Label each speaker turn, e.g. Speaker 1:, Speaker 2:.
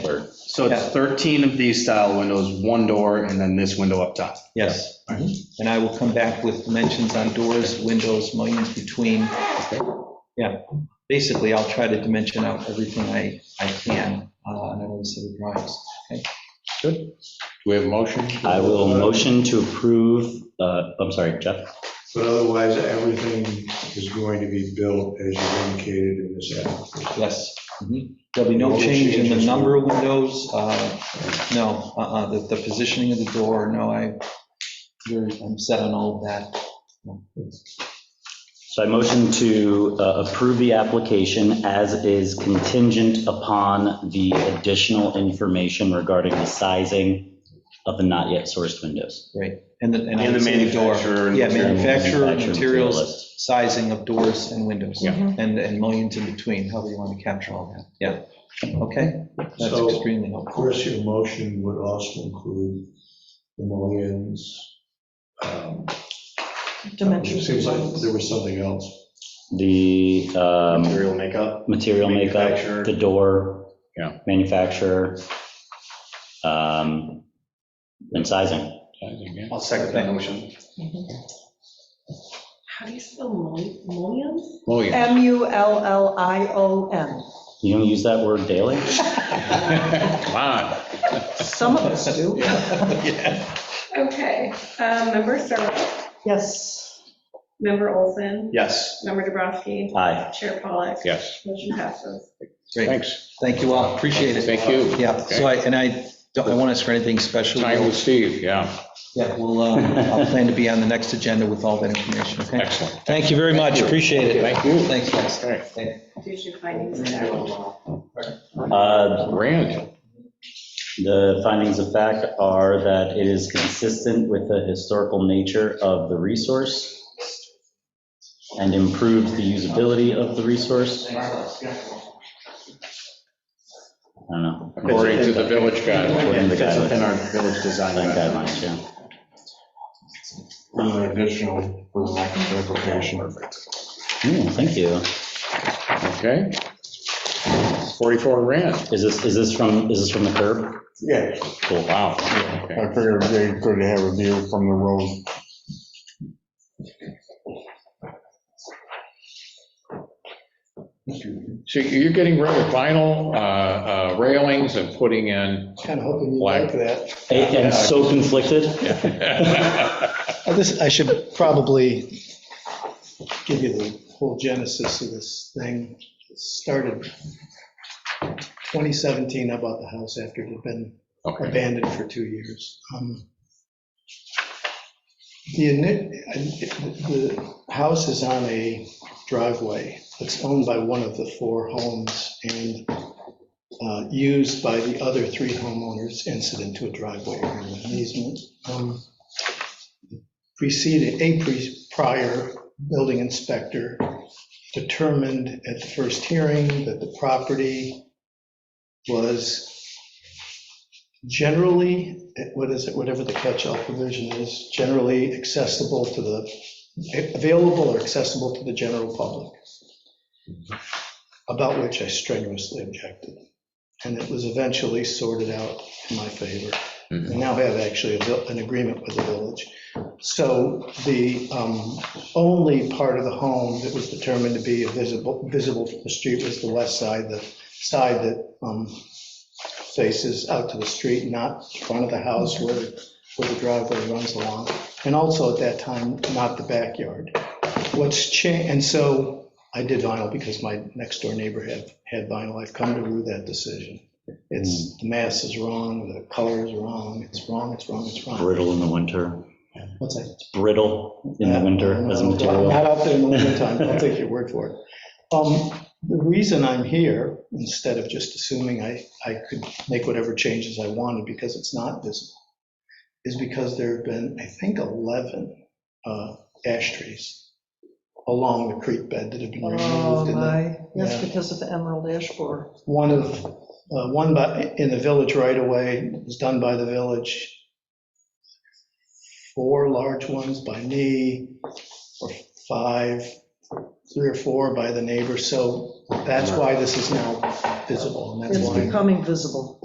Speaker 1: So it's
Speaker 2: Yeah.
Speaker 1: 13 of these style windows, one door, and then this window up top.
Speaker 2: Yes. And I will come back with dimensions on doors, windows, mullions between. Yeah, basically, I'll try to dimension out everything I, I can uh, on all these city drawings.
Speaker 3: Do we have a motion?
Speaker 4: I will motion to approve, uh, I'm sorry, Jeff.
Speaker 5: But otherwise, everything is going to be built as you indicated in this application.
Speaker 2: Yes. Mhm. There'll be no change in the number of windows, uh, no, uh-uh, the, the positioning of the door, no, I, you're, I'm set on all of that.
Speaker 4: So I motion to uh, approve the application as is contingent upon the additional information regarding the sizing of the not yet sourced windows.
Speaker 2: And the, and I
Speaker 1: And the
Speaker 2: would say the door.
Speaker 1: manufacturer. and
Speaker 2: Yeah,
Speaker 1: material.
Speaker 2: manufacturer,
Speaker 4: Manufacturer
Speaker 2: materials,
Speaker 4: list.
Speaker 2: sizing of doors and windows.
Speaker 1: Yeah.
Speaker 2: And, and mullions in between, however you want to capture all that, yeah, okay, that's
Speaker 5: So-
Speaker 2: extremely
Speaker 5: Of
Speaker 2: helpful.
Speaker 5: course, your motion would also include the mullions. um, It
Speaker 6: dimensions.
Speaker 5: seems like there was something else.
Speaker 4: The um,
Speaker 1: Material makeup.
Speaker 4: material
Speaker 1: Manufacturer.
Speaker 4: makeup, the door.
Speaker 3: Yeah.
Speaker 4: Manufacturer. um, And sizing.
Speaker 1: I'll second that motion.
Speaker 6: How do you spell mul- mullions?
Speaker 3: Oh, yeah.
Speaker 6: M U L L I O N.
Speaker 4: You don't use that word daily?
Speaker 3: Come on.
Speaker 6: Some of us do.
Speaker 7: Okay, um, member Searle,
Speaker 6: Yes.
Speaker 7: member Olson,
Speaker 1: Yes.
Speaker 7: member Dubrasky,
Speaker 4: Aye.
Speaker 7: chair Pollak,
Speaker 3: Yes,
Speaker 7: motion passes.
Speaker 2: Great,
Speaker 3: thanks.
Speaker 2: thank you all, appreciate it.
Speaker 3: Thank you.
Speaker 2: Yeah, so I, and I don't, I want to ask for anything special.
Speaker 3: Time with Steve, yeah,
Speaker 2: Yeah, we'll, uh, I'll plan to be on the next agenda with all that information, okay?
Speaker 3: excellent.
Speaker 2: Thank you very much, appreciate it.
Speaker 3: Thank you.
Speaker 2: Thanks, guys.
Speaker 3: All right,
Speaker 7: Did you find these out?
Speaker 4: Uh,
Speaker 3: Grant,
Speaker 4: The findings of fact are that it is consistent with the historical nature of the resource and improves the usability of the resource. I don't know.
Speaker 3: according to the village guide.
Speaker 4: According to the
Speaker 1: Fits within
Speaker 4: guidelines,
Speaker 1: our village design.
Speaker 4: guidelines, yeah.
Speaker 5: An additional for the next application.
Speaker 4: Hmm, Thank you.
Speaker 3: Okay. 44 Rand.
Speaker 4: Is this, is this from, is this from the curb?
Speaker 5: Yeah,
Speaker 4: Cool.
Speaker 3: Wow. okay.
Speaker 5: figured they could have a view from the road.
Speaker 3: So you're getting rid of vinyl uh, uh, railings and putting in
Speaker 8: Kind of hoping you
Speaker 3: Black.
Speaker 8: like that.
Speaker 4: And so conflicted.
Speaker 8: Uh, This, I should probably give you the whole genesis of this thing. It Started 2017, I bought the house after it had been
Speaker 3: Okay.
Speaker 8: abandoned for two years. Um, The, ini- I- the house is on a driveway that's owned by one of the four homes and uh, used by the other three homeowners incident to a driveway or an easement. Um, Preceded, a pre- prior building inspector determined at the first hearing that the property was generally, what is it, whatever the catch-all provision is, generally accessible to the, available or accessible to the general public, about which I strenuously objected. And it was eventually sorted out in my favor.
Speaker 3: Mhm.
Speaker 8: I now have actually a vil- an agreement with the village. So the um, only part of the home that was determined to be visible, visible from the street was the west side, the side that um, faces out to the street, not in front of the house where, where the driveway runs along. And also at that time, not the backyard. What's changed, and so I did vinyl because my next door neighbor had, had vinyl. I've come to rue that decision. It's, the mass is wrong, the color is wrong, it's wrong, it's wrong, it's wrong.
Speaker 4: Brittle in the winter.
Speaker 8: What's that?
Speaker 4: Brittle in the winter as a
Speaker 8: No,
Speaker 4: material.
Speaker 8: Not out there in the wintertime, I'll take your word for it. Um, The reason I'm here, instead of just assuming I, I could make whatever changes I wanted because it's not visible, is because there have been, I think, 11 uh, ash trees along the creek bed that have been
Speaker 6: Oh,
Speaker 8: removed. and the-
Speaker 6: my. Yes,
Speaker 8: Yeah.
Speaker 6: because of the emerald ash borer.
Speaker 8: One of, uh, one by, in the village right away, it was done by the village. Four large ones by me, or five, three or four by the neighbor, so that's why this is now visible, and that's
Speaker 6: It's
Speaker 8: why.
Speaker 6: becoming visible.